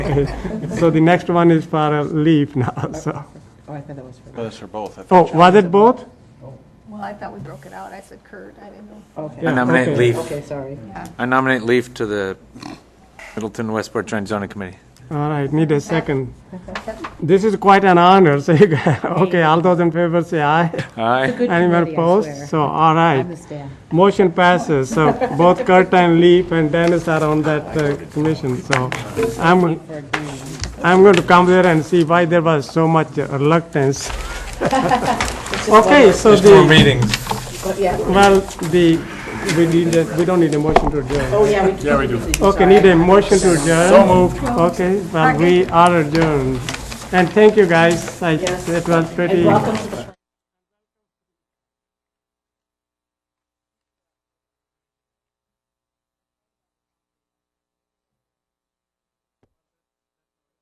So the next one is for a leave now, so. Oh, I thought that was for, Those are both. I Oh, thought you- was it both? Well, I thought we broke it out. I said Kurt, I didn't know. okay, Yeah. I nominate okay. Leaf, okay, sorry. I nominate Leaf to the Middleton Westport Joint Zoning Committee. All right, need a second. This is quite an honor, so you, got- okay, all those in favor say aye. Aye. Anyone opposed? So, all right. the staff. Motion passes, so both Kurt and Leaf and Dennis are on that uh, commission, so I'm, I'm going to come there and see why there was so much reluctance. Okay, so There's four the, meetings. well, the, we need, a- we don't need a motion to adjourn. Oh, yeah, we. Yeah, we do. Okay, need a motion to adjourn? So moved. Okay, well, we are adjourned. And thank you, guys. I- It was pretty. Welcome to the